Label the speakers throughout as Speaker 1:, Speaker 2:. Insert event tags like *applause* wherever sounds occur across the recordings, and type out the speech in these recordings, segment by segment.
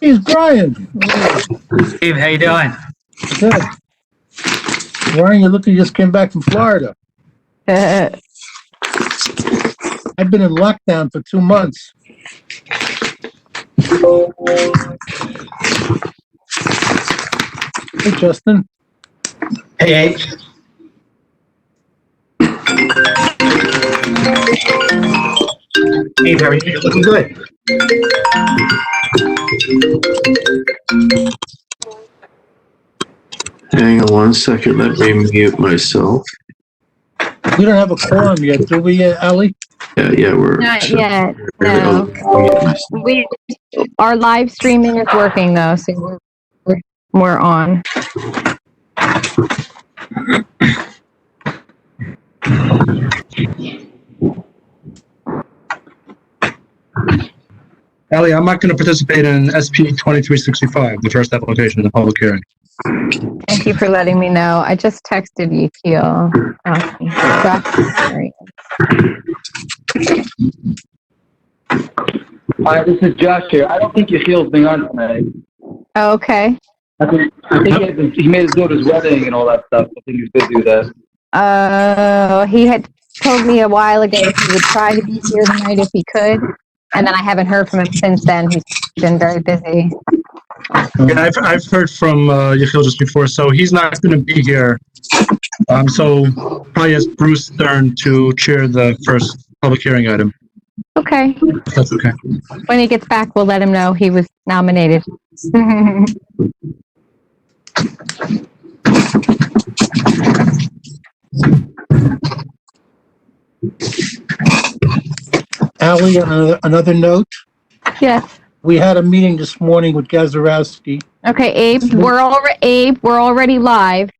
Speaker 1: He's Brian.
Speaker 2: Steve, how you doing?
Speaker 1: Good. Brian, you look, you just came back from Florida. I've been in lockdown for two months. Hey, Justin.
Speaker 2: Hey, Abe. Abe, how are you? Looking good.
Speaker 3: Hang on one second, let me mute myself.
Speaker 1: We don't have a quorum yet, do we, uh, Ally?
Speaker 3: Yeah, yeah, we're.
Speaker 4: Not yet,
Speaker 3: I'll
Speaker 4: no.
Speaker 3: mute myself.
Speaker 4: We, our live streaming is working though, so we're- we're, we're on.
Speaker 5: Ellie, I'm not going to participate in SP 2365, the first application in the public hearing.
Speaker 4: Thank you for letting me know. I just texted you, Um, Keel. asking for clarification.
Speaker 6: Hi, this is Josh here. I don't think Yechiel's being on tonight.
Speaker 4: Oh, Okay,
Speaker 6: I think, I think he, had been, he made us go to his wedding and all that stuff. I think he's busy with that.
Speaker 4: uh, he had told me a while ago that he would try to be here tonight if he could. And then I haven't heard from him since then. He's been very busy.
Speaker 5: Yeah, I've, I've heard from uh, Yechiel just before, so he's not going to be here. Um, so probably ask Bruce Stern to chair the first public hearing item.
Speaker 4: Okay,
Speaker 5: if That's okay.
Speaker 4: when he gets back, we'll let him know he was nominated. *laughs*
Speaker 1: Ally, on another- another note,
Speaker 4: Yes.
Speaker 1: we had a meeting this morning with Gazarovski.
Speaker 4: Okay, Abe, we're already, Abe, we're already live,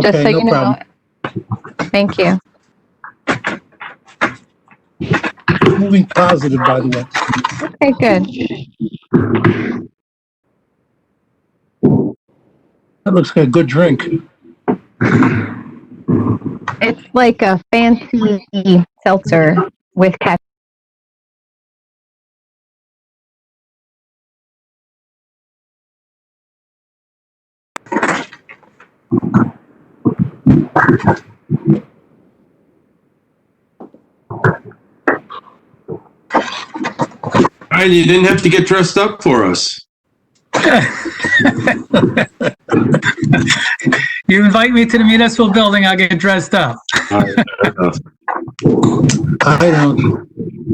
Speaker 4: just so
Speaker 1: Okay, no
Speaker 4: you know.
Speaker 1: problem.
Speaker 4: Thank you.
Speaker 1: Moving positive, by the way.
Speaker 4: Okay, good.
Speaker 1: That looks like a good drink.
Speaker 4: It's like a fancy seltzer with caffeine.
Speaker 3: Brian, you didn't have to get dressed up for us.
Speaker 2: You invite me to the municipal building, I'll get dressed up.
Speaker 3: All right, fair enough.
Speaker 1: I don't.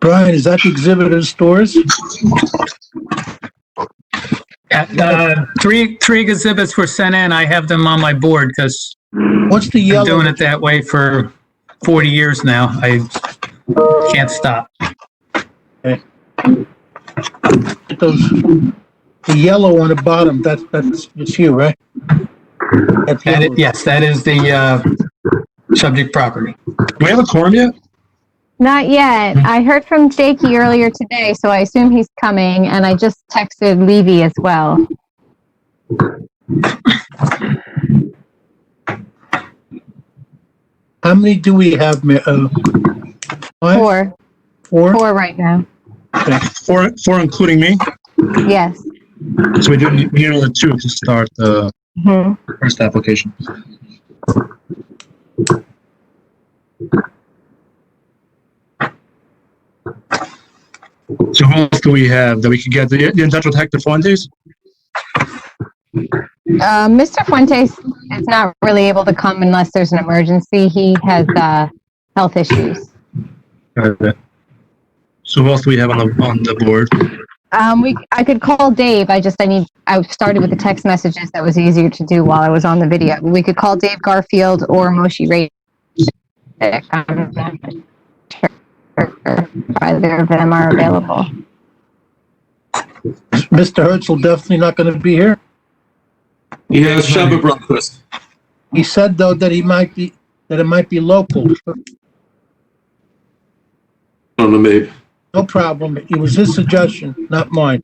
Speaker 1: Brian, is that the exhibit in stores?
Speaker 2: At, uh, Three, three exhibits were sent in. I have them on my board because
Speaker 1: What's the
Speaker 2: I've been
Speaker 1: yellow?
Speaker 2: doing it that way for 40 years now. I can't stop.
Speaker 1: Those, the yellow on the bottom, that's, that's, it's you, right? That's
Speaker 2: That
Speaker 1: yellow.
Speaker 2: i- Yes, that is the uh, subject property.
Speaker 5: Do we have a quorum yet?
Speaker 4: Not yet. I heard from Jakey earlier today, so I assume he's coming, and I just texted Levy as well.
Speaker 1: How many do we have, ma- uh? five?
Speaker 4: Four,
Speaker 1: Four?
Speaker 4: four right now.
Speaker 5: Four, four including me.
Speaker 4: Yes.
Speaker 5: So we do need we need another two to start uh, the
Speaker 4: Mhm.
Speaker 5: first application. So who else do we have that we could get? The, the industrial tech, the Fuentes?
Speaker 4: Uh, Mr. Fuentes is not really able to come unless there's an emergency. He has, uh, health issues.
Speaker 5: So who else do we have on the, on the board?
Speaker 4: Um, we, I could call Dave. I just, I need, I started with the text messages. That was easier to do while I was on the video. We could call Dave Garfield or Moshi Ray. Either of them are available.
Speaker 1: Mr. Herzl definitely not gonna be here.
Speaker 3: He has Shabbat breakfast.
Speaker 1: He said though that he might be, that it might be local.
Speaker 3: On the maybe.
Speaker 1: No problem. It was his suggestion, not mine.